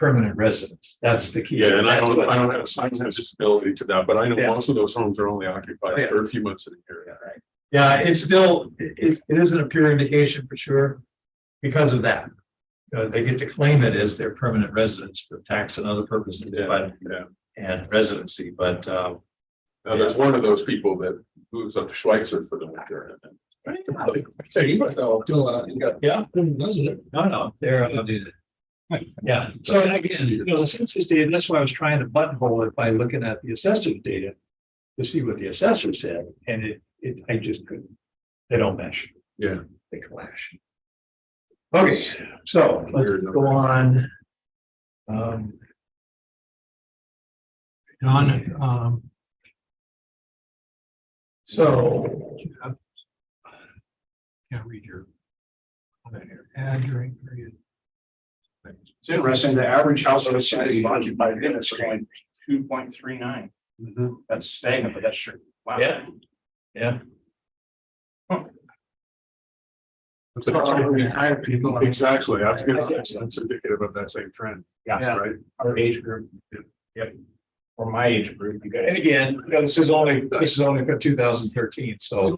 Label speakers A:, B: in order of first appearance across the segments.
A: permanent residence. That's the key.
B: Yeah, and I
A: That's
B: don't,
A: what-
B: I don't have a science disability to that, but I know
A: Yeah.
B: most of those homes are only
A: Oh, yeah.
B: occupied for a few months in a year.
A: Yeah, it's still, it, it isn't a pure indication for sure because of that. Uh, they get to claim it as their permanent residence for tax and other purposes,
B: Yeah,
A: but,
B: yeah.
A: and residency, but, uh,
B: Now, there's one of those people that moves up to Schweitzer for the winter.
A: so you-
B: Yeah. Doesn't it?
A: No, no, they're, uh, do that. Yeah, so and again, you know, the census data, that's why I was trying to buttonhole it by looking at the assessor's data. To see what the assessor said, and it, it, I just couldn't. They don't mesh.
B: Yeah.
A: They clash. Okay, so let's go on. Um. On, um. So. Can't read your. comment here. Add during period.
C: It's interesting, the average household size of occupied units are only two point three nine. That's stagnant, but that's true. Wow.
A: Yeah. Yeah.
B: It's not like we hire people. Exactly, I was gonna say, that's indicative of that same trend.
C: Yeah.
B: Right?
C: Our age group. Yep. Or my age group, you
A: And again, you know, this is only, this is only for two thousand thirteen, so.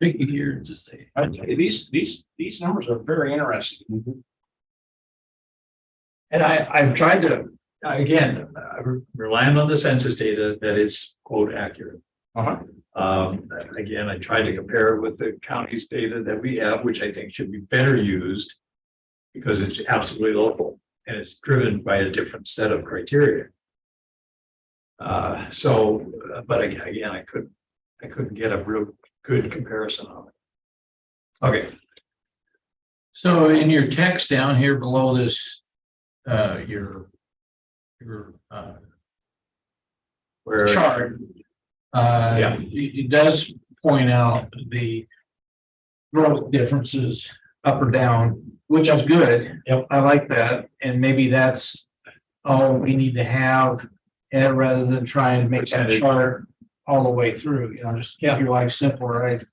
D: Pick a year and just say.
C: got, these, these, these numbers are very interesting.
D: Mm-hmm.
A: And I, I've tried to, again, I'm relying on the census data that is quote accurate.
C: Uh-huh.
A: Um, again, I tried to compare it with the county's data that we have, which I think should be better used. Because it's absolutely local and it's driven by a different set of criteria. Uh, so, uh, but aga- again, I couldn't, I couldn't get a real good comparison of it. Okay,
D: So in your text down here below this, uh, your, your, uh,
A: where.
D: chart. Uh,
A: Yeah.
D: It, it does point out the growth differences up or down, which is good.
A: Yep.
D: I like that, and maybe that's all we need to have, and rather than try and make that
A: Percentage.
D: chart all the way through, you know, just keep your life simpler, right?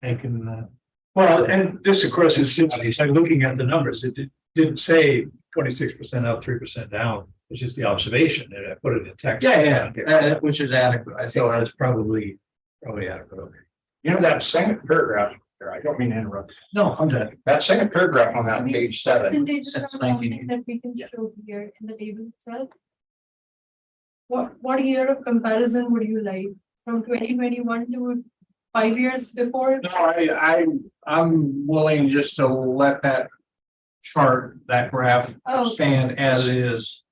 D: Making, uh,
A: Well, and this, of course, is, just- it's like looking at the numbers, it did- didn't say twenty-six percent up, three percent down, it's just the observation, and I put it in text.
D: yeah, yeah, uh, which is adequate, I think.
A: So that's probably, probably adequate, okay.
C: You know, that second paragraph, there, I don't mean to interrupt,
A: No, I'm done.
C: that second paragraph on that page seven,
D: since
E: Percentages are
D: 1980.
E: something that we can
C: Yeah.
E: show here in the table itself. What, what year of comparison would you like from twenty twenty-one to five years before?
D: No, I, I, I'm willing just to let that chart, that graph
E: Oh.
D: stand as is.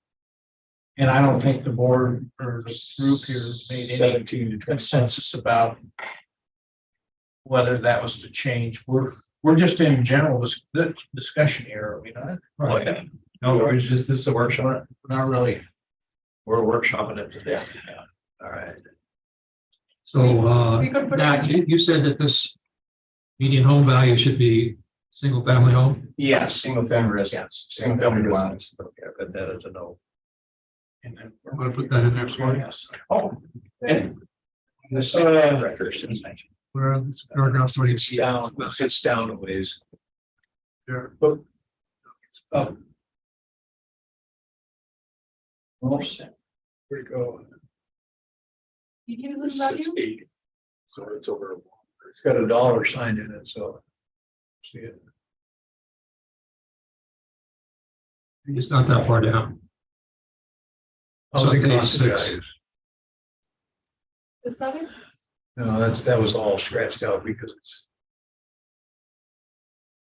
D: And I don't think the board or the group here made any consensus about whether that was to change. We're, we're just in general dis- dis- discussion here, are we not?
A: Right. Oh, No, it's just, this is a workshop,
D: Not really.
A: we're workshopping it today. Yeah. All right.
F: So, uh,
E: We could put
F: now, you, you said that this median home value should be single family home?
C: yeah, single family residence, single family dwelling.
A: Okay, I put that as a no.
D: And then-
F: I'm gonna put that in there for you.
D: Yes.
C: Oh. and The
A: uh,
C: second record,
F: Where are these paragraphs? What do you see?
A: Down, sits down a ways.
B: Where you go?
E: median home value?
B: Six, eight. So it's over.
A: It's got a dollar sign in it, so. See it?
F: It's not that far down. So
A: Housing
F: page
A: cost
F: six.
A: values.
E: Is that it?
A: No, that's, that was all scratched out because it's,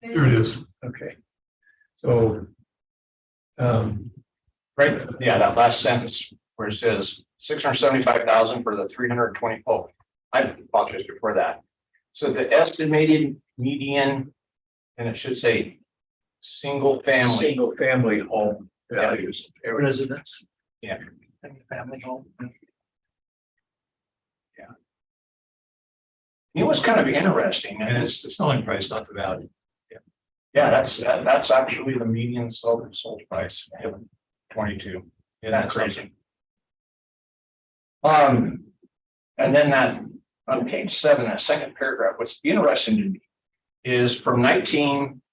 F: There it is.
A: okay. So. Um,
C: right, yeah, that last sentence where it says six hundred seventy-five thousand for the three hundred twenty, oh, I apologize before that. So the estimated median, and it should say single family.
A: single family home values.
D: Residents.
C: Family home. Yeah. It was kind of interesting,
A: And
C: and it's,
A: it's the selling price, not the value.
C: yeah, that's, that- that's actually the median sold, sold price, twenty-two.
A: Yeah,
C: That's
A: that's
C: crazy. Um, and then that, on page seven, that second paragraph, what's interesting to me is from nineteen